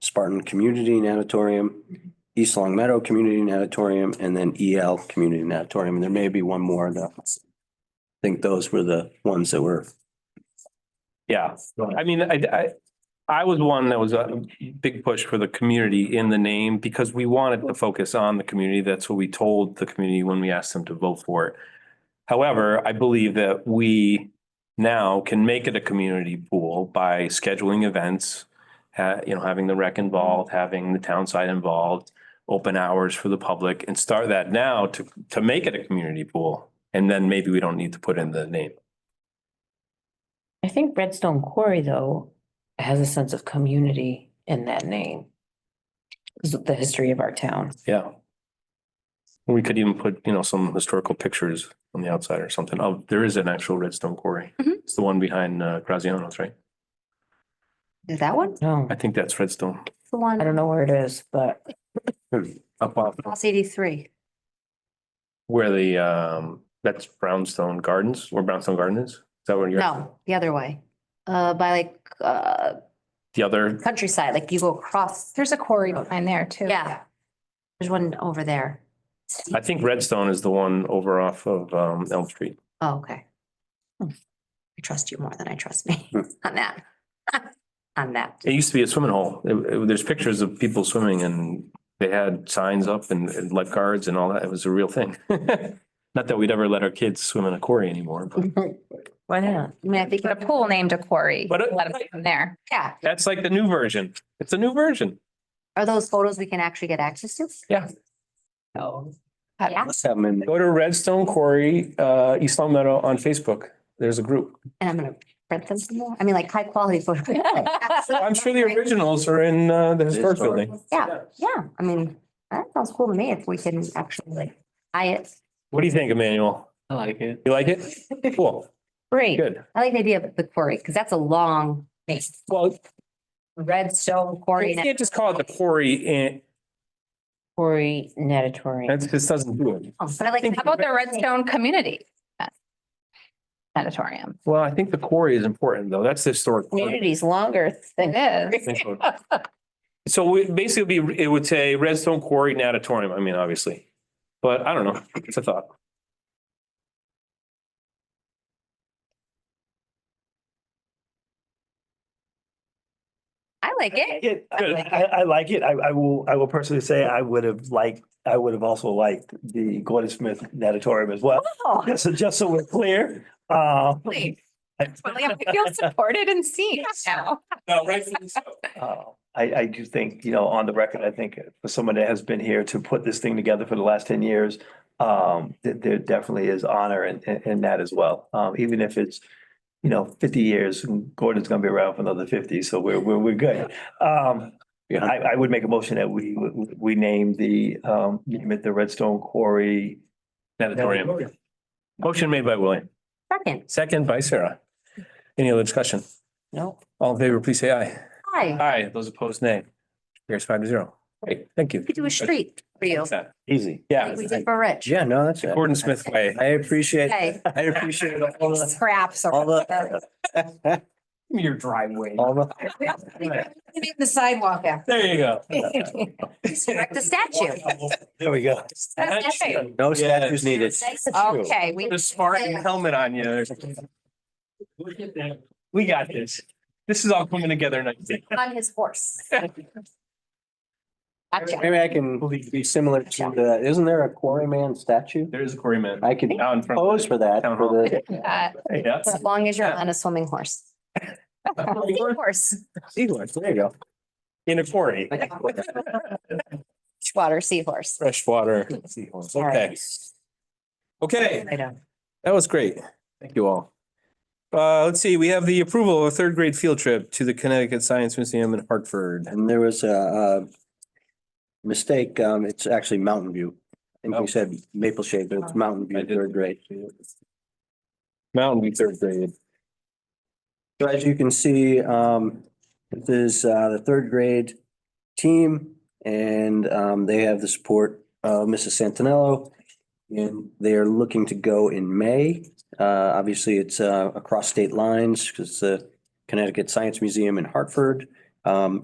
Spartan Community Natatorium, East Long Meadow Community Natatorium, and then EL Community Natatorium. And There may be one more that I think those were the ones that were. Yeah, I mean, I, I, I was one that was a big push for the community in the name because we wanted to focus on the community. That's what we told the community when we asked them to vote for it. However, I believe that we now can make it a community pool by scheduling events. ha- you know, having the rec involved, having the town side involved, open hours for the public and start that now to, to make it a community pool. And then maybe we don't need to put in the name. I think Redstone Quarry, though, has a sense of community in that name. Because of the history of our town. Yeah. We could even put, you know, some historical pictures on the outside or something. Oh, there is an actual redstone quarry. Mhm. It's the one behind uh Graziano's, right? Is that one? No, I think that's redstone. The one. I don't know where it is, but Up off House eighty-three. where the um, that's Brownstone Gardens, where Brownstone Garden is. Is that where you're? No, the other way. Uh, by like, uh, The other, countryside, like you go across. There's a quarry behind there too. Yeah. There's one over there. I think redstone is the one over off of um Elm Street. Oh, okay. Hmm. I trust you more than I trust me Hmm. on that. On that. It used to be a swimming hole. It- it- There's pictures of people swimming and they had signs up and- and lifeguards and all that. It was a real thing. Not that we'd ever let our kids swim in a quarry anymore, but. why not? I mean, I think, Get a pool named a quarry. But, uh, Let 'em come there. yeah, That's like the new version. It's a new version. are those photos we can actually get access to? Yeah. No. Uh, Yeah, Let's have them in. Go to Redstone Quarry, uh, East Long Meadow on Facebook. There's a group. and I'm gonna print them some more. I mean, like high quality photos. I'm sure the originals are in, uh, the historic building. Yeah, yeah. I mean, that sounds cool to me if we can actually like, I, What do you think, Emmanuel? I like it. You like it? Cool, great. good. I like the idea of the quarry, because that's a long name. Well, Redstone you quarry. can't just call it the quarry and Quarry natatorium. that just doesn't do it. Oh, But I like. Think How about the Redstone Community? Auditorium. Well, I think the quarry is important though. That's the historic. part. Community's longer than. It is. So we basically it'd be, it would say Redstone Quarry Natatorium. I mean, obviously. But I don't know. It's a thought. I like it. Yeah, Good. I, I like it. I, I will, I will personally say I would have liked, I would have also liked the Gordon Smith natatorium as well. Oh, Just, so- just so we're clear, uh. Please. William, I feel supported and seen now. No, rightfully so. Uh, I, I do think, you know, on the record, I think for someone that has been here to put this thing together for the last ten years, um, th- there definitely is honor in, in, in that as well. Um, even if it's, you know, fifty years, and Gordon's gonna be around for another fifty, so we're, we're, we're good. Um, Yeah. I, I would make a motion that we, we name the, um, name it the Redstone Quarry. Natatorium. Motion made by William, second. second by Sarah. Any other discussion? No. All in favor, please say aye. Hi, Aye. Those opposed, nay. Here's five to zero. Great, thank you. we could do a street for you. Easy. Yeah, like We did for Rich. Yeah, no, that's it. Gordon Smith way. I appreciate, Okay. I appreciate all the, Scraps. all the, Your driveway. all the, The sidewalk after. There you go. Erect a statue. there we go. Okay. No statues needed. Okay, we, The Spartan helmet on you. We got this. This is all coming together nicely. On his horse. Gotcha. Maybe I can be similar to the, isn't there a quarryman statue? There is a quarry man. I could Out in front. pose for that. Town for the- uh, Yeah. As long as you're on a swimming horse. Horse, Seahorse, There you go. In a quarry. water seahorse. Freshwater. seahorse. Okay. Okay. I don't. That was great. Thank you all. Uh, let's see, we have the approval of a third grade field trip to the Connecticut Science Museum in Hartford. And there was a, uh mistake. Um, it's actually Mountain View. I think Oh. we said Maple Shade, but it's Mountain I View, did. third grade. Mountain View third grade. So as you can see, um, this is, uh, the third grade team and, um, they have the support of Mrs. Santinello. And they are looking to go in May. Uh, obviously it's, uh, across state lines because the Connecticut Science Museum in Hartford. Um,